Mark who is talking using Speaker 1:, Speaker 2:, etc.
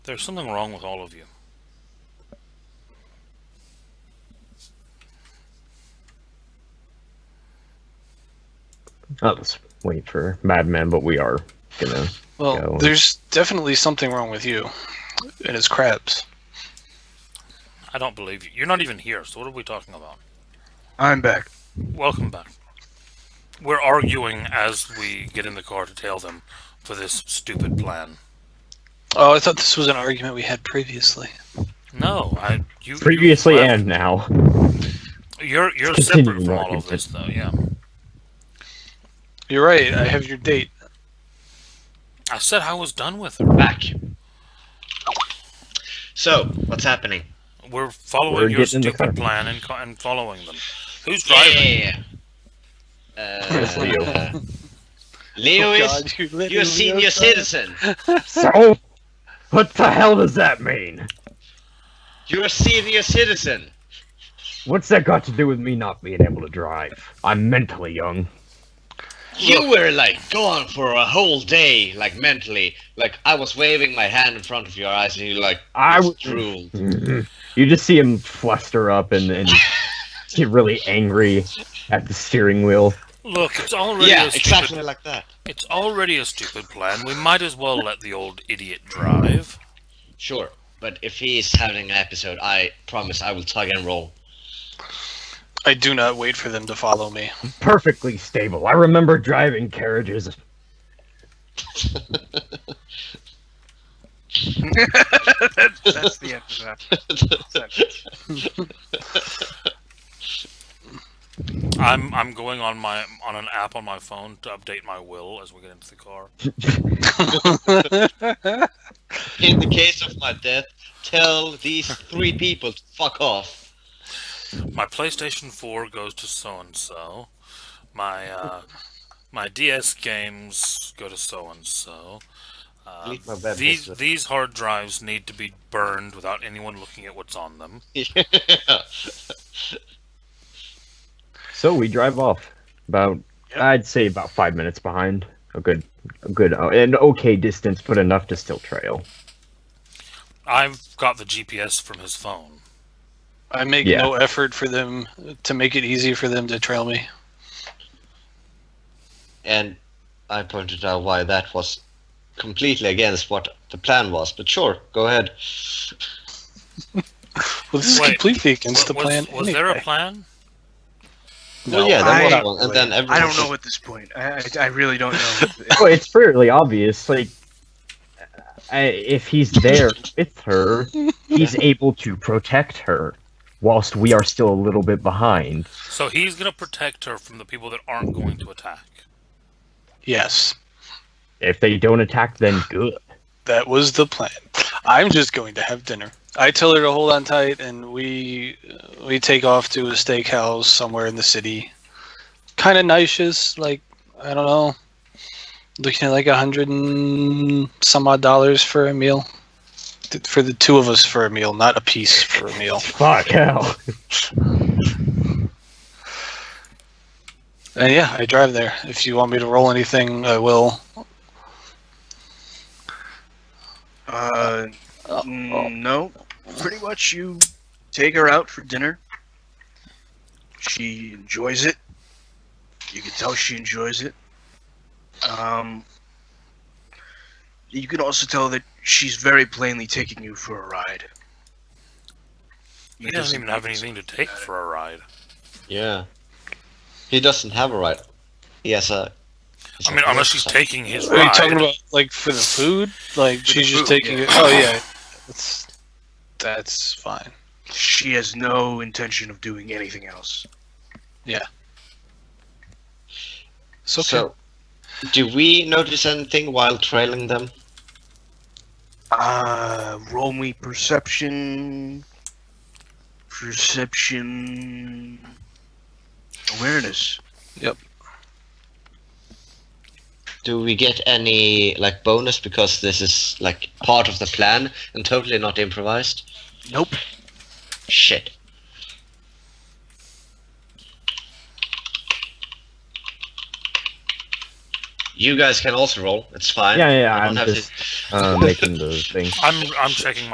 Speaker 1: There's something wrong with all of you.
Speaker 2: I'll just wait for Madman, but we are gonna.
Speaker 3: Well,
Speaker 2: go.
Speaker 3: there's definitely something wrong with you. It is crabs.
Speaker 1: I don't believe you. You're not even here, so what are we talking about?
Speaker 3: I'm back.
Speaker 1: Welcome back. We're arguing as we get in the car to tail them for this stupid plan.
Speaker 3: Oh, I thought this was an argument we had previously.
Speaker 1: No, I you
Speaker 2: Previously
Speaker 1: you,
Speaker 2: and now.
Speaker 1: you're you're
Speaker 2: Let's
Speaker 1: separate
Speaker 2: continue
Speaker 1: from
Speaker 2: arguing.
Speaker 1: all of this though, yeah.
Speaker 3: You're right. I have your date.
Speaker 1: I said I was done with her.
Speaker 4: Back. So, what's happening?
Speaker 1: We're following
Speaker 2: We're
Speaker 1: your
Speaker 2: getting in the car.
Speaker 1: stupid plan and co- and following them. Who's driving?
Speaker 4: Yeah.
Speaker 2: It's Leo.
Speaker 4: Uh,
Speaker 3: Oh,
Speaker 4: Leo is
Speaker 3: you literally
Speaker 4: you're a senior
Speaker 3: outside.
Speaker 4: citizen.
Speaker 2: so, what the hell does that mean?
Speaker 4: You're a senior citizen.
Speaker 2: What's that got to do with me not being able to drive? I'm mentally young.
Speaker 4: You were like gone for a whole day, like mentally. Like I was waving my hand in front of your eyes, and you like
Speaker 2: I
Speaker 4: just
Speaker 2: w-
Speaker 4: drooled.
Speaker 2: Mhm. You just see him fluster up and, and get really angry at the steering wheel.
Speaker 1: Look, it's already
Speaker 4: Yeah,
Speaker 1: a stupid
Speaker 4: exactly like that.
Speaker 1: it's already a stupid plan. We might as well let the old idiot drive.
Speaker 4: Sure, but if he's having an episode, I promise I will tug and roll.
Speaker 3: I do not wait for them to follow me.
Speaker 2: Perfectly stable. I remember driving carriages.
Speaker 5: That's the end of that.
Speaker 1: I'm I'm going on my on an app on my phone to update my will as we get into the car.
Speaker 4: In the case of my death, tell these three people to fuck off.
Speaker 1: My PlayStation 4 goes to so and so. My uh, my DS games go to so and so.
Speaker 4: Leave Uh, my bed,
Speaker 1: These
Speaker 4: Mister.
Speaker 1: these hard drives need to be burned without anyone looking at what's on them.
Speaker 2: So we drive off. About I'd say about five minutes behind. A good, a good, uh, an okay distance, but enough to still trail.
Speaker 1: I've got the GPS from his phone.
Speaker 3: I make
Speaker 2: Yeah.
Speaker 3: no effort for them to make it easy for them to trail me.
Speaker 4: and I pointed out why that was completely against what the plan was. But sure, go ahead.
Speaker 3: Well, this is
Speaker 1: Wait,
Speaker 3: completely against the
Speaker 1: was,
Speaker 3: plan.
Speaker 1: was there a
Speaker 3: anyway.
Speaker 1: plan?
Speaker 4: well, yeah, that
Speaker 5: I-
Speaker 4: was one. And then everyone
Speaker 5: I don't know at this point. I, I, I really don't know.
Speaker 2: Oh, it's fairly obvious. Like, I, if he's there with her, he's able to protect her, whilst we are still a little bit behind.
Speaker 1: So he's gonna protect her from the people that aren't going to attack.
Speaker 3: Yes,
Speaker 2: If they don't attack, then good.
Speaker 3: that was the plan. I'm just going to have dinner. I tell her to hold on tight, and we uh, we take off to a steakhouse somewhere in the city. Kind of nice, like I don't know, looking at like a hundred and some odd dollars for a meal. Th- For the two of us for a meal, not a piece for a meal.
Speaker 2: Fuck hell.
Speaker 3: And yeah, I drive there. If you want me to roll anything, I will.
Speaker 5: Uh,
Speaker 1: Oh,
Speaker 5: mm, no. Pretty much, you take her out for dinner. She enjoys it. You can tell she enjoys it. Um, you can also tell that she's very plainly taking you for a ride.
Speaker 1: He doesn't even have anything to take for a ride.
Speaker 4: Yeah. He doesn't have a right. He has a.
Speaker 1: I mean, unless she's taking his
Speaker 3: Are you
Speaker 1: ride.
Speaker 3: talking about like for the food? Like
Speaker 5: the
Speaker 3: she's just
Speaker 5: food,
Speaker 3: taking
Speaker 5: yeah.
Speaker 3: it. Oh yeah, that's that's fine.
Speaker 5: She has no intention of doing anything else.
Speaker 3: It's okay.
Speaker 4: So, do we notice anything while trailing them?
Speaker 5: Uh, roll me perception. Perception. Awareness.
Speaker 4: Do we get any like bonus because this is like part of the plan and totally not improvised?
Speaker 5: Nope.
Speaker 4: Shit. You guys can also roll. It's fine.
Speaker 2: Yeah, yeah,
Speaker 4: I
Speaker 2: I'm
Speaker 4: don't have
Speaker 2: just uh, making the thing.
Speaker 1: I'm I'm checking